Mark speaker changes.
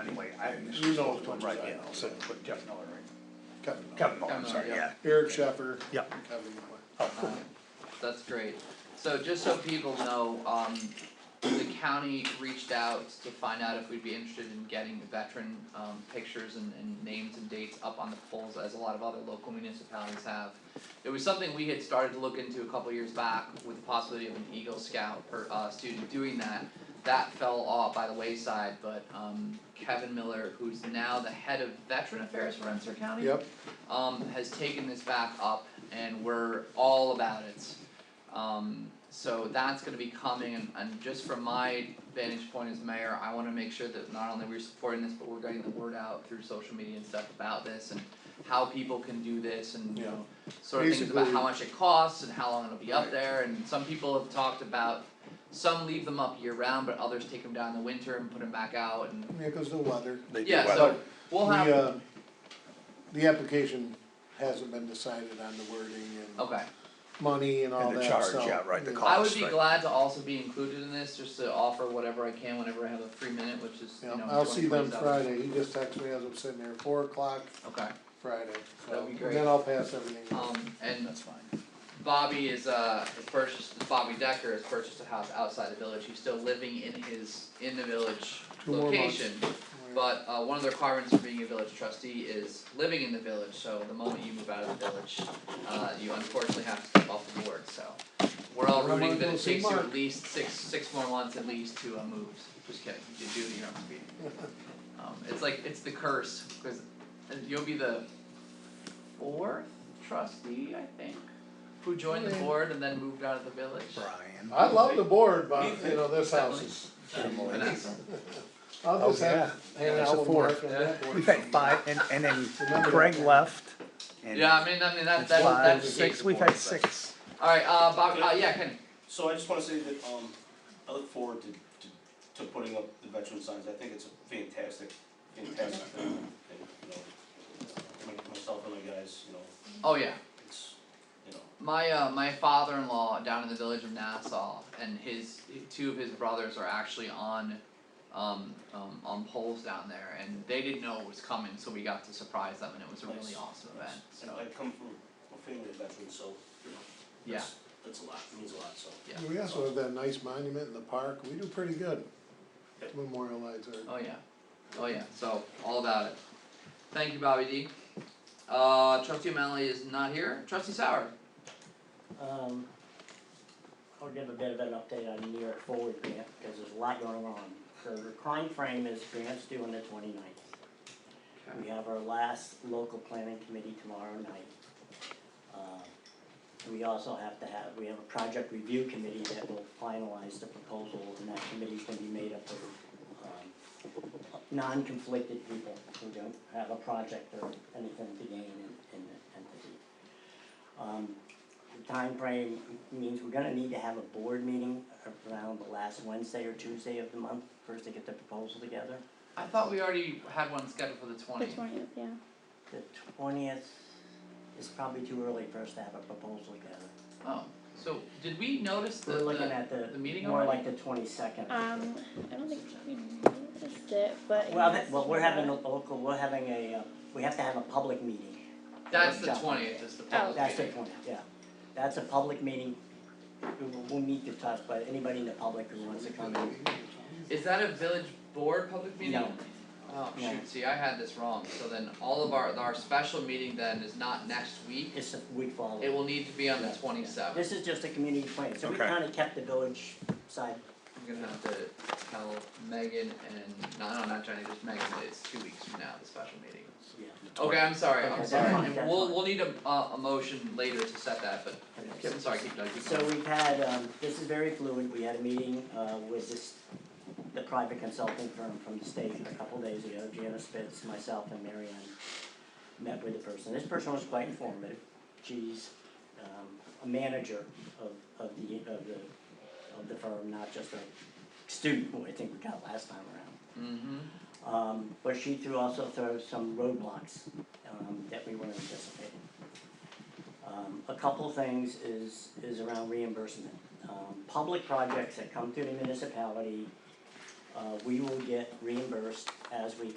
Speaker 1: anyway, I.
Speaker 2: You know as much as
Speaker 1: Right,
Speaker 2: I
Speaker 1: yeah,
Speaker 2: know.
Speaker 1: so put Jeff Miller, right?
Speaker 2: Kevin.
Speaker 1: Kevin Miller,
Speaker 3: Kevin
Speaker 1: I'm
Speaker 3: Miller,
Speaker 1: sorry,
Speaker 3: yeah.
Speaker 1: yeah.
Speaker 2: Eric Sheffer.
Speaker 1: Yeah.
Speaker 2: and Kevin Miller.
Speaker 1: Oh, cool.
Speaker 3: That's great. So just so people know, um, the county reached out to find out if we'd be interested in getting the veteran, um, pictures and, and names and dates up on the polls as a lot of other local municipalities have. It was something we had started to look into a couple years back with the possibility of an Eagle Scout per, uh, student doing that. That fell off by the wayside, but, um, Kevin Miller, who's now the head of Veteran Affairs for Rensselaer County
Speaker 2: Yep,
Speaker 3: um, has taken this back up and we're all about it. Um, so that's gonna be coming and, and just from my vantage point as mayor, I wanna make sure that not only we're supporting this, but we're getting the word out through social media and stuff about this and how people can do this and, you know, sort of things about
Speaker 2: Basically-
Speaker 3: how much it costs and how long it'll be up
Speaker 2: Right.
Speaker 3: there and some people have talked about some leave them up year round, but others take them down in the winter and put them back out and,
Speaker 2: yeah, cause the weather.
Speaker 1: They do
Speaker 3: yeah,
Speaker 1: well.
Speaker 3: so we'll have,
Speaker 2: The, uh, the application hasn't been decided on the wording and
Speaker 3: okay.
Speaker 2: money and all
Speaker 1: Oh. And
Speaker 2: that,
Speaker 1: the
Speaker 2: so,
Speaker 1: charge, yeah, right, the
Speaker 2: yeah.
Speaker 3: I would
Speaker 1: cost,
Speaker 3: be
Speaker 1: right?
Speaker 3: glad to also be included in this, just to offer whatever I can whenever I have a free minute, which is, you
Speaker 2: Yeah,
Speaker 3: know,
Speaker 2: I'll see
Speaker 3: 20,
Speaker 2: them
Speaker 3: 20,000.
Speaker 2: Friday, he just texted me as I'm sitting there, four o'clock
Speaker 3: Okay,
Speaker 2: Friday,
Speaker 3: That'd
Speaker 2: so,
Speaker 3: be
Speaker 2: and
Speaker 3: great.
Speaker 2: then I'll pass everything.
Speaker 3: um, and
Speaker 1: That's fine.
Speaker 3: Bobby is, uh, has purchased, Bobby Decker has purchased a house outside the village, he's still living in his, in the village
Speaker 2: Two more months.
Speaker 3: location. But, uh, one of the requirements for being a village trustee is living in the village, so the moment you move out of the village, uh, you unfortunately have to step off the board, so. We're all
Speaker 2: Well, I'm
Speaker 3: rooting
Speaker 2: gonna
Speaker 3: that
Speaker 2: go
Speaker 3: it
Speaker 2: see
Speaker 3: takes you
Speaker 2: Mark.
Speaker 3: at least six, six more months at least to, uh, move, just kidding, you do it, you're not speeding. Um, it's like, it's the curse, cause you'll be the fourth trustee, I think, who joined the
Speaker 2: Yeah.
Speaker 3: board and then moved out of the village.
Speaker 1: Brian.
Speaker 2: I love the board, but, you know, this house is,
Speaker 3: Vanessa.
Speaker 2: I'll
Speaker 4: Oh,
Speaker 2: just have, hang
Speaker 4: That's a
Speaker 2: out with
Speaker 4: four.
Speaker 2: Mark on that board.
Speaker 4: We've had five, and, and then
Speaker 2: Remember
Speaker 4: Craig
Speaker 2: that.
Speaker 4: left. and
Speaker 3: Yeah, I mean, I mean, that,
Speaker 4: it's
Speaker 3: that,
Speaker 4: five,
Speaker 3: that's.
Speaker 4: six, we've had six.
Speaker 3: Alright, uh, Bob, uh, yeah, Kenny,
Speaker 5: So I just wanna say that, um, I look forward to, to, to putting up the veteran signs, I think it's a fantastic, fantastic thing, and, you know, my- myself and my guys, you know,
Speaker 3: oh yeah,
Speaker 5: it's, you know,
Speaker 3: my, uh, my father-in-law down in the village of Nassau, and his, two of his brothers are actually on, um, um, on poles down there, and they didn't know it was coming, so we got to surprise them, and it was a really
Speaker 5: Nice.
Speaker 3: awesome event, so,
Speaker 5: and I come from a family of veterans, so, you know,
Speaker 3: yeah,
Speaker 5: that's, that's a lot, it means a lot, so.
Speaker 3: yeah,
Speaker 2: We also have that nice monument in the park, we do pretty good.
Speaker 5: Yep.
Speaker 2: Memorialize our
Speaker 3: oh yeah, oh yeah, so, all about it. Thank you, Bobby D. Uh, trustee O'Malley is not here, trustee Sauer,
Speaker 6: Um, I'll give a bit of an update on New York Forward grant, because there's a lot going on. The recurring frame is grants due on the 29th. We have our last local planning committee tomorrow night. Uh, We also have to have, we have a project review committee that will finalize the proposal, and that committee's gonna be made up of, um, non-conflicted people who don't have a project or anything to gain in, in the entity. Um, the time frame means we're gonna need to have a board meeting around the last Wednesday or Tuesday of the month, first to get the proposal together.
Speaker 3: I thought we already had one scheduled for the
Speaker 7: The
Speaker 3: twentieth.
Speaker 7: twentieth, yeah.
Speaker 6: The twentieth is probably too early for us to have a proposal together.
Speaker 3: Oh, so did we notice the
Speaker 6: We're looking
Speaker 3: the,
Speaker 6: at the,
Speaker 3: the meeting
Speaker 6: more like
Speaker 3: already?
Speaker 6: the twenty-second.
Speaker 7: Um, I don't think we noticed it, but.
Speaker 6: Well,
Speaker 7: yes,
Speaker 6: that- well, we're
Speaker 7: yeah.
Speaker 6: having a local, we're having a, uh, we have to have a public meeting.
Speaker 3: That's the
Speaker 6: Workshop.
Speaker 3: twentieth, is the
Speaker 7: Oh.
Speaker 3: public
Speaker 6: That's the
Speaker 3: meeting.
Speaker 6: twenty, yeah. That's a public meeting. We- We'll, we'll meet to talk, but anybody in the public who wants to come in,
Speaker 3: Is that a village board public meeting?
Speaker 6: No.
Speaker 3: Oh,
Speaker 6: No.
Speaker 3: shoot, see, I had this wrong, so then all of our, our special meeting then is not next week,
Speaker 6: it's the week following.
Speaker 3: it will need to be on the
Speaker 6: Yeah, yeah.
Speaker 3: twenty seventh.
Speaker 6: This is just a community plan, so we
Speaker 1: Okay.
Speaker 6: kinda kept the village side,
Speaker 3: I'm gonna have to tell Megan and, no, no, not Jenny, just Megan, that it's two weeks from now, the special meeting.
Speaker 6: yeah.
Speaker 3: Okay, I'm sorry,
Speaker 6: Okay,
Speaker 3: I'm
Speaker 6: that's
Speaker 3: sorry,
Speaker 6: fine,
Speaker 3: And
Speaker 6: that's
Speaker 3: we'll,
Speaker 6: fine.
Speaker 3: we'll need a, a, a motion later to set that, but,
Speaker 6: Okay.
Speaker 3: I'm sorry, keep, going, keep
Speaker 6: So
Speaker 3: going.
Speaker 6: we've had, um, this is very fluid, we had a meeting, uh, with this, the private consulting firm from the state a couple days ago, Janice Spitz, myself and Mary Ann met with the person, this person was quite informative, she's, um, a manager of, of the, of the, of the firm, not just a student, who I think we got last time around.
Speaker 3: Mm-hmm,
Speaker 6: Um, but she threw, also throws some roadblocks, um, that we weren't anticipating. Um, a couple things is, is around reimbursement. Um, public projects that come through the municipality, uh, we will get reimbursed as we